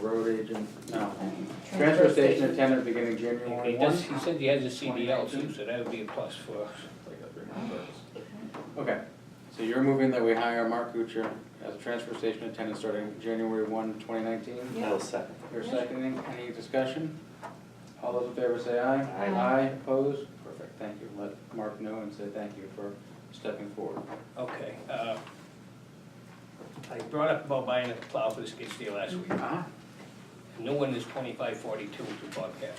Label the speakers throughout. Speaker 1: road agent, no.
Speaker 2: Transfer station attendant beginning January one.
Speaker 3: He does, he said he has a CDL too, so that would be a plus for us.
Speaker 2: Okay, so you're moving that we hire Mark Kuchar as a transfer station attendant starting January one, twenty nineteen?
Speaker 4: I'll second.
Speaker 2: You're seconding, any discussion? All those in favor say aye.
Speaker 4: Aye.
Speaker 2: Aye, opposed? Perfect, thank you. Let Mark know and say thank you for stepping forward.
Speaker 3: Okay, uh, I brought up about buying a plow for the skid steer last week.
Speaker 2: Ah,
Speaker 3: The New one is twenty-five forty-two to Bobcat.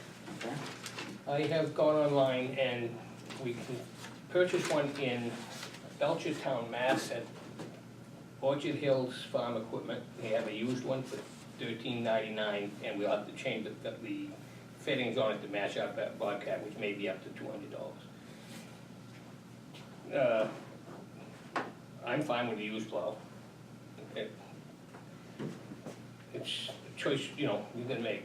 Speaker 2: okay.
Speaker 3: I have gone online and we can purchase one in Belchertown, Mass. at Orchard Hills Farm Equipment. They have a used one for thirteen ninety-nine and we'll have to change the, the fittings on it to match up that Bobcat, which may be up to two hundred dollars. Uh, I'm fine with the used plow. It- It's a choice, you know, you can make.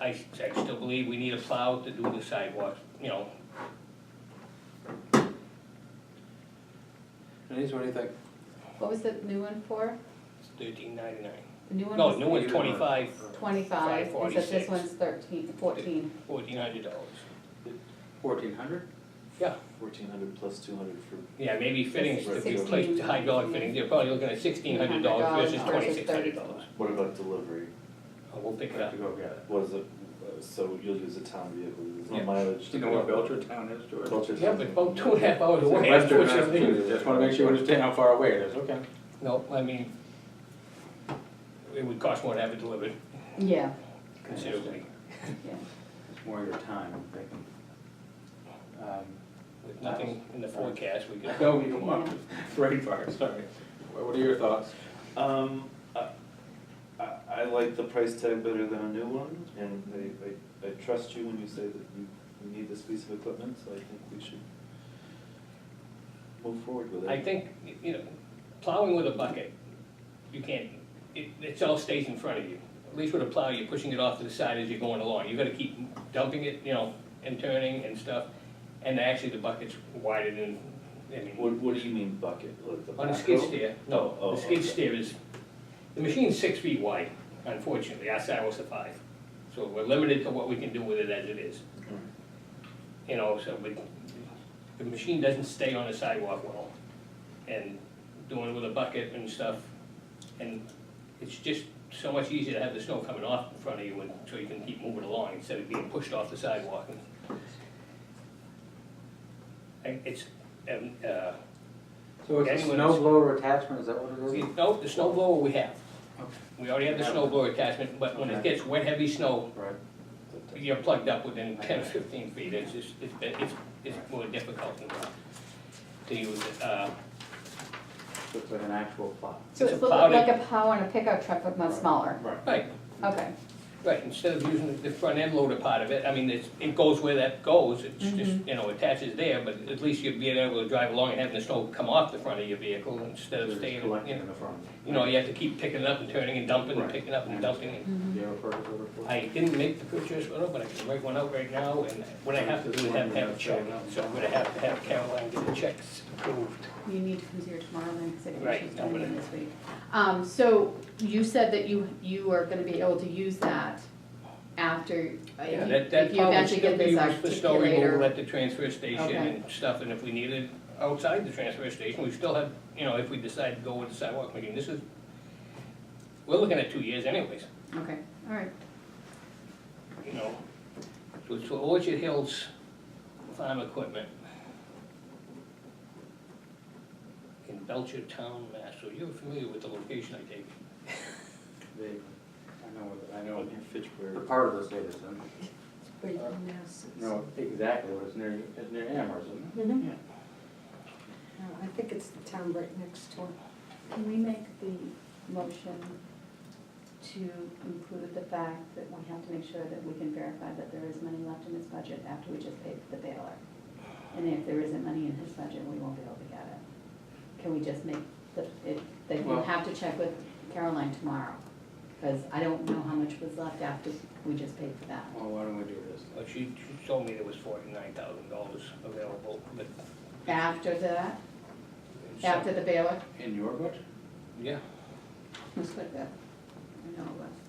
Speaker 3: I, I still believe we need a plow to do the sidewalks, you know,
Speaker 2: Denise, what do you think?
Speaker 5: What was the new one for?
Speaker 3: thirteen ninety-nine.
Speaker 5: The new one
Speaker 3: No,
Speaker 5: was
Speaker 3: new one's twenty-five,
Speaker 5: twenty-five, and so this
Speaker 3: 546.
Speaker 5: one's thirteen, fourteen.
Speaker 3: fourteen hundred dollars.
Speaker 2: Fourteen hundred?
Speaker 4: Fourteen hundred plus two hundred for,
Speaker 3: Yeah, maybe fittings to
Speaker 4: Sixteen.
Speaker 3: replace the hydraulic fittings, they're probably looking at sixteen hundred dollars versus
Speaker 5: $1,600
Speaker 3: twenty-six hundred dollars. Oh,
Speaker 4: what about delivery?
Speaker 3: We'll pick it
Speaker 2: Have
Speaker 3: up.
Speaker 2: to go get it.
Speaker 4: What is it, uh, so you'll use a town vehicle, there's
Speaker 2: Yeah.
Speaker 4: no mileage.
Speaker 2: Do you know where Belcher Town is, George?
Speaker 4: Belcher's-
Speaker 3: Yeah, but about two and a half hours
Speaker 2: It's in
Speaker 3: away,
Speaker 2: Western
Speaker 3: unfortunately.
Speaker 2: Massachusetts. Just wanna make sure you understand how far away it is, okay?
Speaker 3: No, I mean, it would cost more to have it delivered
Speaker 5: Yeah,
Speaker 3: considerably
Speaker 5: yeah.
Speaker 2: It's more your time, I'm thinking. Um,
Speaker 3: with nothing in the forecast, we could.
Speaker 2: No, you want, right far, sorry. What are your thoughts?
Speaker 4: Um, I, I, I like the price tag better than a new one, and I, I, I trust you when you say that you, you need this piece of equipment, so I think we should move forward with it.
Speaker 3: I think, you know, plowing with a bucket, you can't, it, it all stays in front of you. At least with a plow, you're pushing it off to the side as you're going along. You gotta keep dumping it, you know, and turning and stuff. And actually, the bucket's wider than, I
Speaker 4: What,
Speaker 3: mean,
Speaker 4: what do you mean bucket, like the
Speaker 3: on a
Speaker 4: backhoe?
Speaker 3: skid steer,
Speaker 4: Oh,
Speaker 3: no, the skid
Speaker 4: okay.
Speaker 3: steer is, the machine's six feet wide, unfortunately, our sidewalks are five. So we're limited to what we can do with it as it is.
Speaker 4: Alright. Mm-hmm.
Speaker 3: you know, so we, the machine doesn't stay on the sidewalk well. And doing it with a bucket and stuff, and it's just so much easier to have the snow coming off in front of you and so you can keep moving along instead of being pushed off the sidewalk. And- And it's, and, uh,
Speaker 2: So it's a
Speaker 3: Anyone
Speaker 2: snow
Speaker 3: else?
Speaker 2: blower attachment, is that what it is?
Speaker 3: no, the snow blower we have.
Speaker 2: Okay.
Speaker 3: We already have the snow blower attachment, but when it
Speaker 2: Okay.
Speaker 3: gets wet, heavy snow,
Speaker 2: Right.
Speaker 3: you're plugged up within ten or fifteen feet, it's just, it's been, it's, it's more difficult than that to use it, uh,
Speaker 2: Looks like an actual plot.
Speaker 5: So
Speaker 3: It's
Speaker 5: it's
Speaker 3: a
Speaker 5: a little
Speaker 3: plowed
Speaker 5: bit like a plow on a pickup truck, but much smaller.
Speaker 2: Right.
Speaker 3: right,
Speaker 5: Okay,
Speaker 3: right, instead of using the front end loader part of it, I mean, it's, it goes where that goes, it's just, you know, attaches there, but at least you'd be able to drive along and having the snow come off the front of your vehicle instead
Speaker 2: They're
Speaker 3: of
Speaker 2: just
Speaker 3: staying,
Speaker 2: collecting
Speaker 3: you know,
Speaker 2: in the front.
Speaker 3: you know, you have to keep picking it up and turning and dumping and
Speaker 2: Right. Mm-hmm.
Speaker 3: picking up and dumping.
Speaker 2: Do you have a purchase order for it?
Speaker 3: I didn't make the purchase order, but I can write one out right now, and what I have to do is have to have a check, so I'm gonna have to have Caroline get the checks approved.
Speaker 5: you need to come here tomorrow then, because I
Speaker 3: Right,
Speaker 5: think she's
Speaker 3: I'm
Speaker 5: coming in
Speaker 3: gonna-
Speaker 5: this week. Um, so you said that you, you are gonna be able to use that after, if
Speaker 3: Yeah,
Speaker 5: you
Speaker 3: that, that
Speaker 5: if you
Speaker 3: probably
Speaker 5: eventually
Speaker 3: still
Speaker 5: get
Speaker 3: be
Speaker 5: this
Speaker 3: used for snow removal
Speaker 5: articulator.
Speaker 3: at the transfer station
Speaker 5: Okay.
Speaker 3: and stuff, and if we need it outside the transfer station, we still have, you know, if we decide to go with the sidewalk machine, this is, we're looking at two years anyways,
Speaker 5: Okay, all right.
Speaker 3: you know. So it's for Orchard Hills Farm Equipment in Belcher Town, Mass. So you're familiar with the location, I take it?
Speaker 2: They- I know, what- I know
Speaker 4: Oh,
Speaker 2: what
Speaker 4: you
Speaker 2: the
Speaker 4: Fitchburg.
Speaker 2: part of the state is in. No, exactly, what it's near, it's near Amherst, isn't it?
Speaker 6: Mhm.
Speaker 2: Yeah.
Speaker 6: No, I think it's the town right next door.
Speaker 5: Can we make the motion to include the fact that we have to make sure that we can verify that there is money left in this budget after we just paid the bailiff? And if there isn't money in his budget, we won't be able to get it. Can we just make the, it, that you
Speaker 2: Well-
Speaker 5: have to check with Caroline tomorrow? Because I don't know how much was left after we just paid for that.
Speaker 2: Well, why don't we do this?
Speaker 3: Well, she, she told me there was forty-nine thousand dollars available, but.
Speaker 5: After that, after the bailiff?
Speaker 2: In your budget?
Speaker 3: Yeah.
Speaker 5: Let's put that, I know,